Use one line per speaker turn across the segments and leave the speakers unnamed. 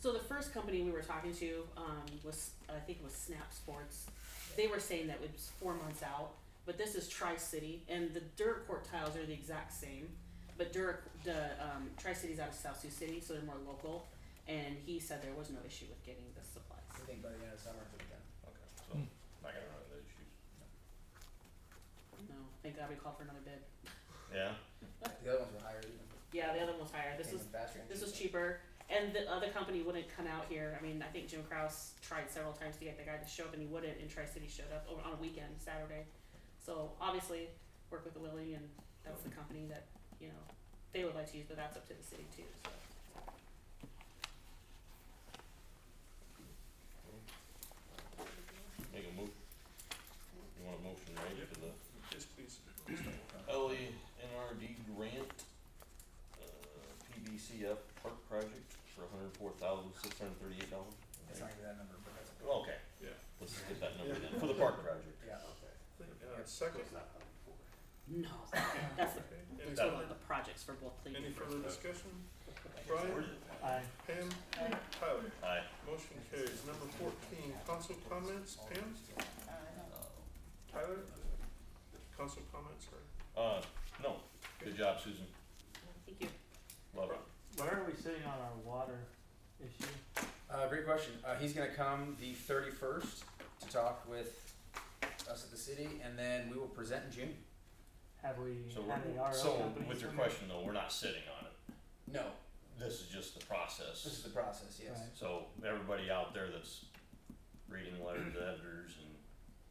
So the first company we were talking to um, was, I think it was Snap Sports. They were saying that it was four months out, but this is Tri City, and the Duracourt tiles are the exact same, but Durac the um, Tri City's out of South Sioux City, so they're more local. And he said there was no issue with getting the supplies.
I think by the end of summer, we can.
Okay, so
Hmm.
not gonna run into issues.
No, thank God we called for another bid.
Yeah.
The other ones were higher even.
Yeah, the other one was higher. This
Came
was
in faster.
This was cheaper, and the other company wouldn't come out here. I mean, I think Jim Kraus tried several times to get the guy to show up, and he wouldn't. And Tri City showed up over on a weekend, Saturday. So obviously, work with the Willing, and that's the company that you know they would like to use, but that's up to the city too. So
Make a move. You want a motion, right,
Yep.
for the
Yes, please.
Oh,
L E N R D grant, uh, PBCF park project for hundred four thousand six hundred thirty-eight dollars?
It's not even that number, but that's okay.
Okay,
Yeah.
let's just get that number then, for the park project.
Yeah.
Uh, second.
no, that's the,
Okay. Any
That
further,
the projects for both leagues.
any further discussion? Brian,
Aye.
Pam, Tyler.
Aye.
Motion carries. Number fourteen, council comments. Pam, Tyler. Council comments, or
Uh, no, good job, Susan,
Thank you.
love it.
Where are we sitting on our water issue?
Uh, great question. Uh, he's gonna come the thirty-first to talk with us at the city, and then we will present in June.
Have we
So
had
we're-
the RO
So,
companies
with your
come in?
question though, we're not sitting on it,
No,
this is just the
this is
process.
the process, yes.
Right.
So, everybody out there that's reading the letters to editors and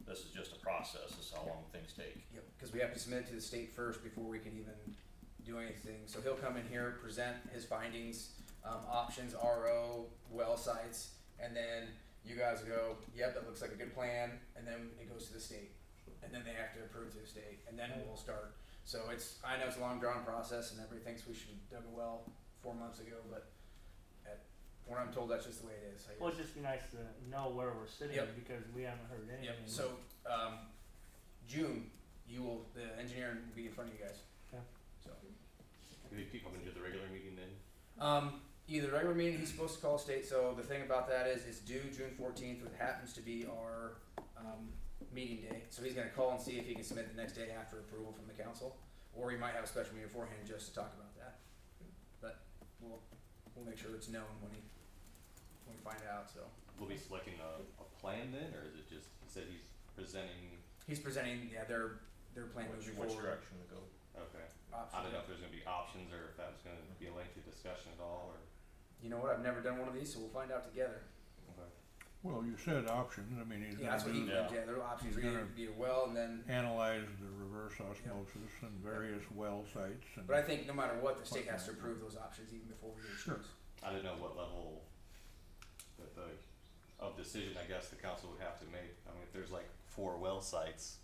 this is just a process, this is how long things take.
Yep, because we have to submit it to the state first before we can even do anything. So he'll come in here, present his findings, um, options, RO, well sites, and then you guys go, yep, that looks like a good plan, and then it goes to the state. And then they have to approve to the state, and then we'll start. So it's, I know it's a long drawn process and everybody thinks we should have dug a well four months ago, but at, when I'm told that's just the way it is, I guess.
Well, it'd just be nice to know where we're sitting
Yep.
because we haven't heard anything.
Yep, so, um, June, you will, the engineering will be in front of you guys.
Okay.
So.
Do they keep coming to the regular meeting then?
Um, either regular meeting, he's supposed to call state, so the thing about that is, it's due June fourteenth, which happens to be our, um, meeting day. So he's gonna call and see if he can submit the next day after approval from the council, or he might have a special meeting beforehand just to talk about that. But we'll, we'll make sure it's known when he, when we find out, so.
Will be selecting a, a plan then, or is it just, he said he's presenting,
He's presenting, yeah, their, their plan
Which, which
moving forward.
direction to go.
okay. I
Option.
don't know if there's gonna be options or if that was gonna be a lengthy discussion at all, or,
You know what, I've never done one of these, so we'll find out together.
okay.
Well, you said options, I mean, he's
Yeah, that's what
gonna
he,
do,
yeah,
Yeah.
there are options,
He's
we
gonna-
be a well and then
analyze the reverse osmosis and various well sites and.
But I think no matter what, the state has to approve those options even before we
Sure.
choose.
I don't know what level that the, of decision, I guess, the council would have to make. I mean, if there's like four well sites,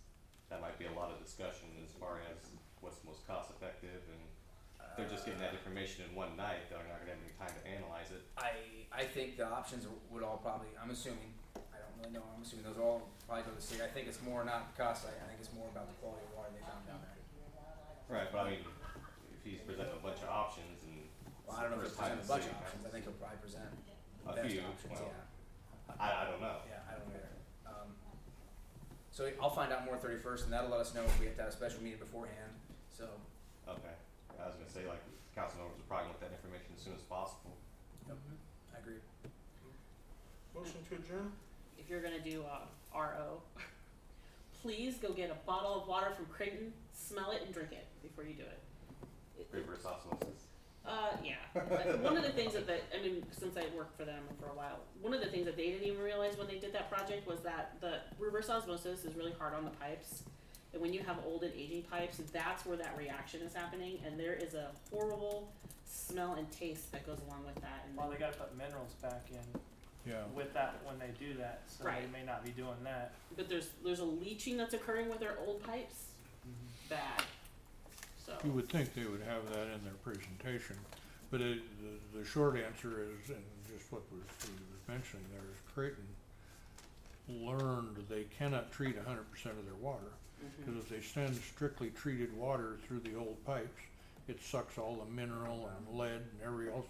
that might be a lot of discussion as far as what's most cost effective and if they're just getting that information in one night, they're not gonna have any time to analyze it.
I, Uh, I think the options would all probably, I'm assuming, I don't really know, I'm assuming those all probably go to the state. I think it's more not the cost side, I think it's more about the quality of water they found down there.
Right, but I mean, if he's presenting a bunch of options and. it's
Well, I don't know if
the
it's
first time
presented a
the
bunch of
city
options, I think it'll probably present the
A
best
few,
options,
well.
yeah,
I, I don't know.
yeah, I don't know. Um, so I'll find out more thirty first and that'll let us know if we have to have a special meeting beforehand, so,
Okay, I was gonna say, like, council members would probably want that information as soon as possible.
I agree.
motion to adjourn?
If you're gonna do uh, RO, please go get a bottle of water from Creighton, smell it, and drink it before you do it. It- it-
Reverse osmosis.
Uh, yeah. But one of the things that, that I mean, since I worked for them for a while, one of the things that they didn't even realize when they did that project was that the reverse osmosis is really hard on the pipes. And when you have old and aging pipes, that's where that reaction is happening, and there is a horrible smell and taste that goes along with that. And
Well, they gotta put minerals back in
Yeah,
with that when they do that, so they
Right.
may not be doing that.
but there's there's a leaching that's occurring with our old pipes.
Mm-hmm.
Bad. So
you would think they would have that in their presentation, but it, the, the short answer is, and just what was, he was mentioning there is Creighton learned they cannot treat hundred percent of their water,
mhm.
cause if they send strictly treated water through the old pipes, it sucks all the mineral and lead and every else